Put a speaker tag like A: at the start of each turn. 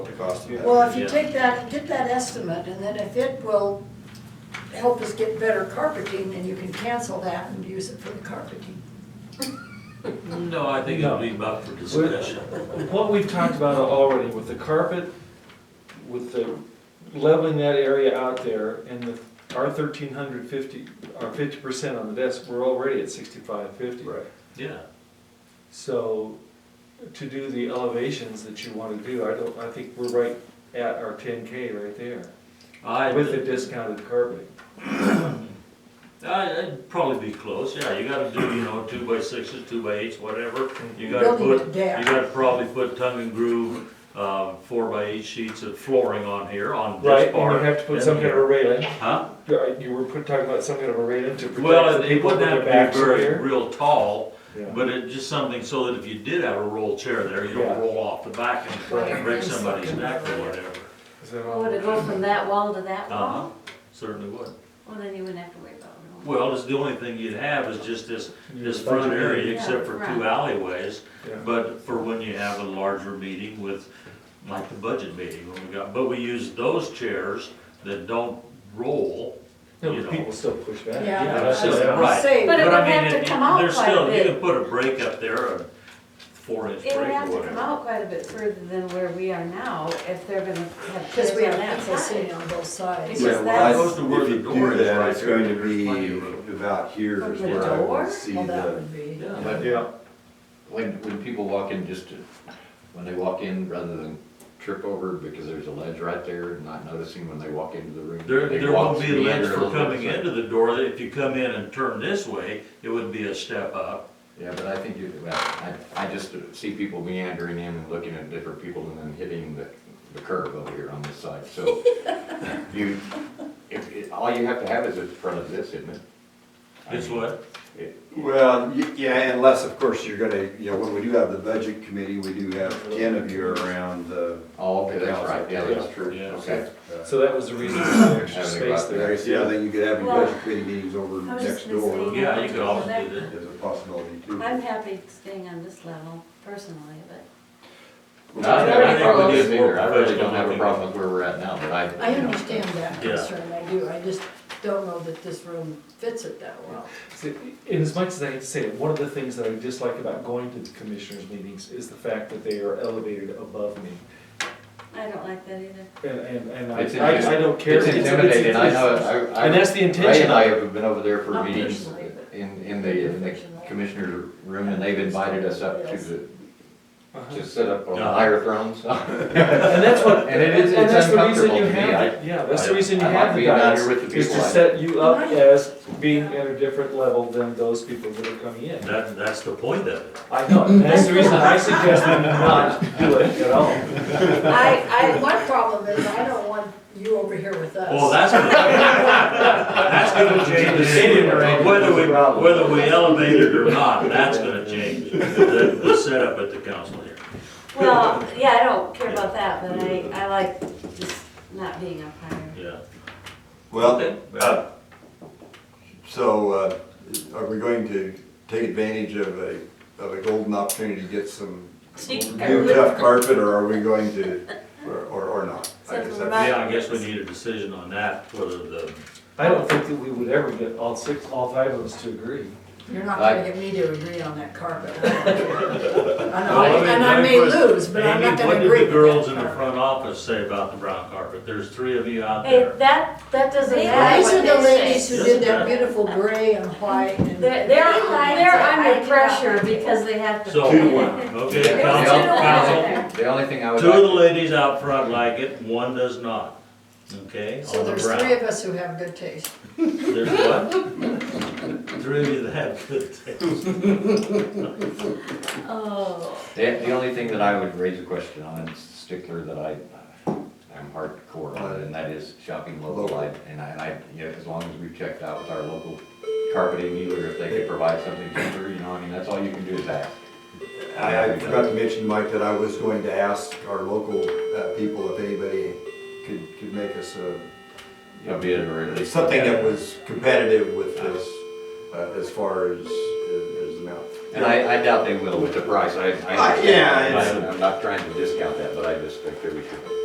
A: the cost of that.
B: Well, if you
C: Yeah.
B: take that, get that estimate, and then if it will help us get better carpeting, then you can cancel that and use it for the carpeting.
C: No, I think it'll be up for discussion.
D: What we've talked about already with the carpet, with the leveling that area out there and the, our thirteen hundred fifty, our fifty percent on the desk, we're already at sixty-five fifty.
A: Right.
C: Yeah,
D: So to do the elevations that you wanna do, I don't, I think we're right at our ten K right there
C: I,
D: with the
C: would
D: discounted carpet.
C: I'd probably be close, yeah, you gotta do, you know, two by sixes, two by eights, whatever. You gotta
B: Building
C: put,
B: it
C: you
B: down.
C: gotta probably put tongue and groove, um, four by eight sheets of flooring on here, on
D: Right,
C: this
D: and you
C: part.
D: have to put
C: and
D: some kind of a
C: here.
D: railing,
C: Huh?
D: you are- you were put- talking about some kind of a railing to protect
C: Well,
D: the
C: it
D: people with
C: wouldn't
D: their
C: have
D: backs
C: to
D: are
C: be very,
D: here.
C: real tall,
D: Yeah.
C: but it, just something so that if you did have a roll chair there, you
D: Yeah.
C: don't roll off the back and
B: Right.
C: break somebody's neck or whatever.
D: Is that all?
E: Would it go from that wall to that
C: Uh-huh,
E: wall?
C: certainly would.
E: Well, then you wouldn't have to worry about it.
C: Well, it's the only thing you'd have is just this
D: Your
C: This front
D: budget
C: area,
E: Yeah,
C: except for two
E: right.
C: alleyways,
D: Yeah.
C: but for when you have a larger meeting with, like the budget meeting, when we got, but we use those chairs that don't roll.
D: No,
C: you know.
D: but people still push back.
B: Yeah.
C: Yeah,
D: that's
C: so-
D: just-
C: right.
B: Say,
E: But it
C: I
E: would
C: mean,
E: have to
C: it-
E: come out
C: there's
E: quite a
C: still-
E: bit.
C: You can put a break up there, a four inch break
E: It
C: or
E: would have to come
C: whatever.
E: out quite a bit further than where we are now if they're gonna have.
B: Because we have
E: chairs on that
B: people
E: side.
B: sitting on both sides.
E: Yeah.
A: Yeah,
E: that's-
A: well,
C: Close to where
A: I- if
C: the
A: you
C: door
A: do
C: is
A: that,
C: right
A: it's
C: there,
A: going to
C: there's plenty of room.
A: be about here
E: From
A: is
E: the
A: where I
E: door?
A: would see
B: Well, that
A: the,
B: would be,
C: Yeah,
F: But
D: Yeah,
F: when, when people walk in, just to, when they walk in, rather than trip over because there's a ledge right there, not noticing when they walk into the room.
C: there,
F: they
C: there
F: walk
C: won't be
F: through the
C: ledge
F: ladder a
C: for
F: little bit,
C: coming
F: so-
C: into the door, if you come in and turn this way, it would be a step up.
F: Yeah, but I think you, well, I, I just see people meandering in and looking at different people and then hitting the, the curb over here on this side, so. You, if, it- all you have to have is in front of this, isn't it? I
C: It's
F: mean,
C: what,
F: it-
A: well, y- yeah, unless, of course, you're gonna, you know, when we do have the budget committee, we do have ten of you around the.
F: Oh, okay, that's right, yeah, that's true,
C: Yeah.
F: okay.
A: uh,
D: so that was the reason for the extra
F: Having
D: space
F: about
D: there.
A: I Yeah, then you could have your
E: Well,
A: budget committee meetings over
E: I was
A: next
E: gonna
A: door
E: say-
C: yeah, you could always do that.
A: as a possibility too.
E: I'm happy staying on this level personally, but
F: No, I
E: Very
F: think we
E: close.
F: do either. I really don't have a problem with where we're at now, but I.
B: I
F: you know,
B: understand that
C: Yeah.
B: concern, I do, I just don't know that this room fits it that well.
D: See, In as much as I hate to say it, one of the things that I dislike about going to the commissioners' meetings is the fact that they are elevated above me.
E: I don't like that either.
D: And, and, and I,
F: It's
D: I I don't care.
F: It's intimidating, I know, it. I, I.
D: And that's the
F: Ray
D: intention
F: and
D: of
F: I
D: it.
F: have been over there for
B: Not
F: meetings
B: personally,
F: in, in the in the commissioner room, and they've invited us up to the,
D: Uh-huh.
F: to sit up on the
C: Uh-huh.
F: higher thrones.
D: And that's what,
F: And it is-
D: and
F: it's
D: that's the reason
F: uncomfortable
D: you
F: to me.
D: have, it. yeah, that's the
C: I-
D: reason you
F: I like
D: have the
F: being down here
D: guidance,
F: with the
D: is to
F: people I-
D: set you up
B: Right.
D: as being at a different level than those people that are coming in.
C: That, that's the point of it.
D: I know, and that's the reason I suggest them not do it at all.
B: I, I, one problem is I don't want you over here with us.
C: Well, that's, that's gonna change the city, whether we, whether we elevate it or not, that's gonna change the, the setup at the council here.
E: Well, yeah, I don't care about that, but I, I like just not being up higher.
C: Yeah.
A: Well,
C: Okay. Uh,
A: so uh, are we going to take advantage of a, of a golden opportunity to get some new tough carpet, or are we going to, or, or or not? I guess that's-
C: Yeah, I guess we need a decision on that, whether the,
D: I don't think that we would ever get all six, all five of us to agree.
B: You're not
F: I-
B: gonna get me to agree on that carpet. And I,
C: Well, I mean,
B: and I may
C: mine was-
B: lose, but I'm not
C: Amy, what
B: gonna
C: did
B: agree
C: the
B: with
C: girls in the
B: that carpet.
C: front office say about the brown carpet? There's three of you out
E: Hey,
C: there.
E: that, that doesn't
B: These
E: matter
B: are
E: what
B: the
E: they
B: ladies
E: say.
B: who did that beautiful gray and white and.
E: They're, they're, they're under pressure because they have to.
C: So,
A: Two,
C: okay,
F: The only-
C: council, council,
F: The only thing I would
C: two of the
F: like,
C: ladies out front like it, one does not, okay?
B: So
C: on the
B: there's
C: brown.
B: three of us who have good taste.
C: There's what? Three of you that have good taste.
E: Oh.
F: the, the only thing that I would raise a question on, and stickler that I, I'm hardcore on, and that is shopping local. I- And I, and I, you know, as long as we've checked out with our local carpeting dealer, if they could provide something cheaper, you know, I mean, that's all you can do is ask.
A: I I forgot to mention, Mike, that I was going to ask our local uh, people if anybody could, could make us a,
F: You know, be it or at least-
A: something that was competitive with this uh, as far as, as the amount.
F: And I, I doubt they will with the price, I, I.
A: Uh, Ah, yeah, it's-
F: I'm not trying to discount that, but I just think that we should.